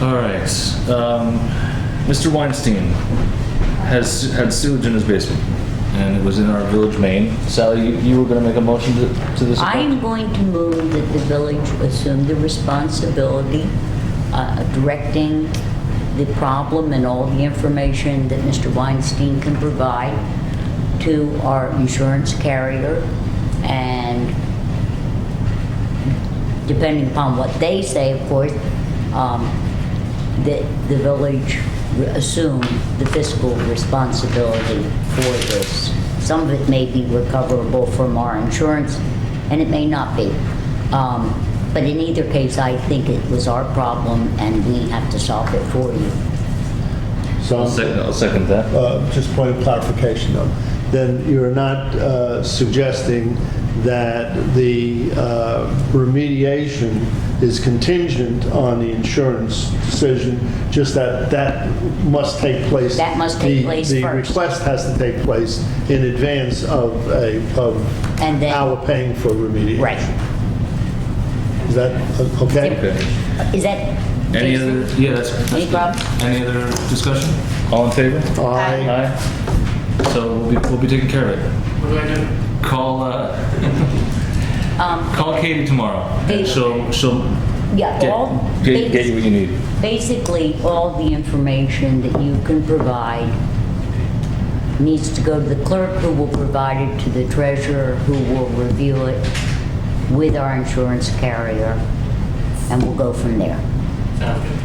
All right. Um, Mr. Weinstein has had sewage in his basement, and it was in our village main. Sally, you, you were going to make a motion to, to this. effect? I'm going to move that the village assume the responsibility uh, of directing the problem and all the information that Mr. Weinstein can provide to our insurance carrier, and depending upon what they say, of course, um, that the village assume the fiscal responsibility for this. Some of it may be recoverable from our insurance, and it may not be. Um, But in either case, I think it was our problem, and we have to solve it for you. I'll So, second, I'll second that. uh, just point of clarification though, then you're not uh, suggesting that the uh, remediation is contingent on the insurance decision, just that that must take place. That must take the- place The first. request has to take place in advance of a, of And then- our paying for remediation. Right. Is that, uh, okay? Okay. Is that? Any Jason? other? Yeah, that's. that's Any good. problems? Any other discussion? All in favor? Aye. Aye. So we'll be, we'll be taking care of it. What do I do? Call, uh, Um, call Katie tomorrow. and Katie. She'll, she'll Yeah, all. get, get get you what you need. basically, all the information that you can provide needs to go to the clerk, who will provide it to the treasurer, who will review it with our insurance carrier, and we'll go from there. Sounds good.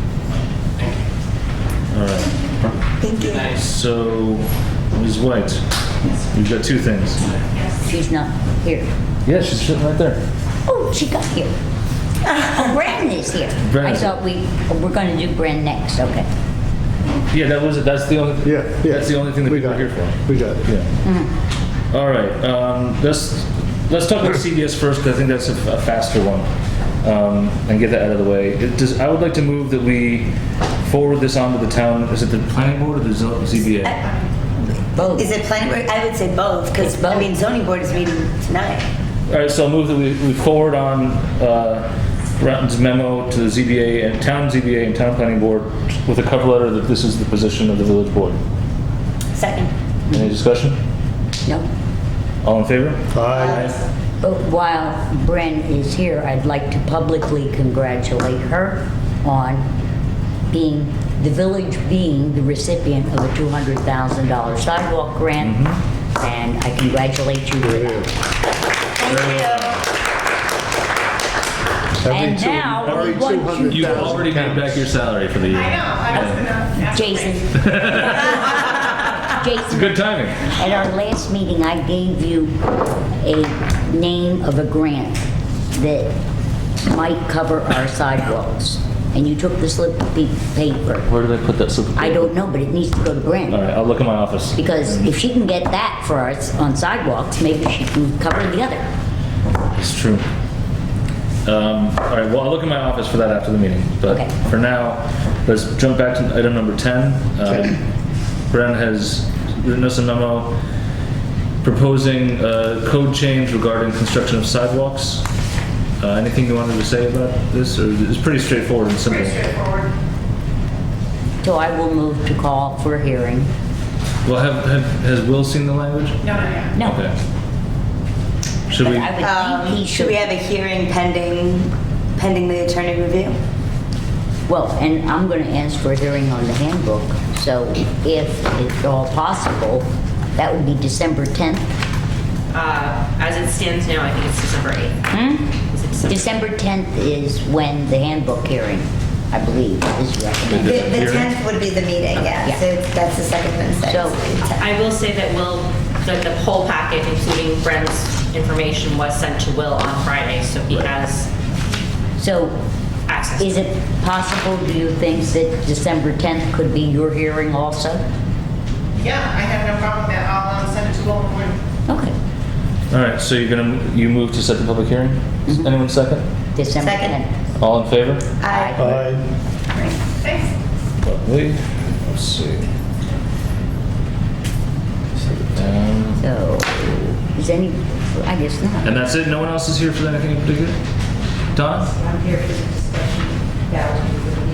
Thank All right. you. Nice. So, Ms. White, you've got two things. She's not here. Yeah, she's sitting right there. Oh, she got here. Oh, Bren is here. I Bren's- thought we, we're gonna do Bren next, okay. Yeah, that was it. That's the only. Yeah, yeah. That's the only thing that We people got are here it. for. We got it. Yeah. All right. Um, let's let's talk about CDS first because I think that's a, a faster one, um, and get that out of the way. It does, I would like to move that we forward this on to the town. Is it the planning board or the zo- ZBA? Both. Is it planning board? I would say both, It's because, both. I mean, zoning board is meeting tonight. All right. So I'll move that we, we forward on uh, Renton's memo to the ZBA and town ZBA and town planning board with a cover letter that this is the position of the village board. Second. Any discussion? No. All in favor? Aye. But while Bren is here, I'd like to publicly congratulate her on being, the village being the recipient of a $200,000 sidewalk grant, and I congratulate you with that. Every And two- now we every want you- 200,000 You've already paid counts. back your salary for the year. I know, I was gonna ask. Jason. Jason, Good timing. At our last meeting, I gave you a name of a grant that might cover our sidewalks, and you took the slip of pa- paper. Where did I put that slip? I don't know, but it needs to go to All Brent, right, I'll look in my office. because if she can get that for us on sidewalks, maybe she can cover the other. It's true. Um, all right, well, I'll look in my office for that after the meeting. But Okay. for now, let's jump back to item number 10. Um, Bren has written us a memo proposing a code change regarding construction of sidewalks. Uh, anything you wanted to say about this, or it's pretty straightforward and simple? Pretty straightforward. So I will move to call for a hearing. Well, have, have, has Will seen the language? No, no, no. No, Okay. Should but we? I would Um, think he Should we should. have a hearing pending, pending the attorney review? Well, and I'm gonna ask for a hearing on the handbook, so if it's all possible, that would be December 10th. Uh, as it stands now, I think it's December 8th. Hmm? Is it December? December 10th is when the handbook hearing, I believe, is The- The recommended. the hearing? 10th would be the meeting, yeah, Yeah. so it's- that's the second Wednesday. So- I will say that Will, that the whole packet, including Brent's information, was sent to Will on Friday, so he has So access. Is it possible, do you think, that December 10th could be your hearing also? Yeah, I have no problem with that. I'll um, send it to Will in the morning. Okay, All right, so you're gonna, you move to set the public hearing? Mm-hmm. Anyone second? December Second. 10th. All in favor? Aye. Aye. Thanks. Lovely. Let's see. Um, So, is any, I guess not. And that's it? No one else is here for anything in particular? Don? I'm here for the discussion. That will be with the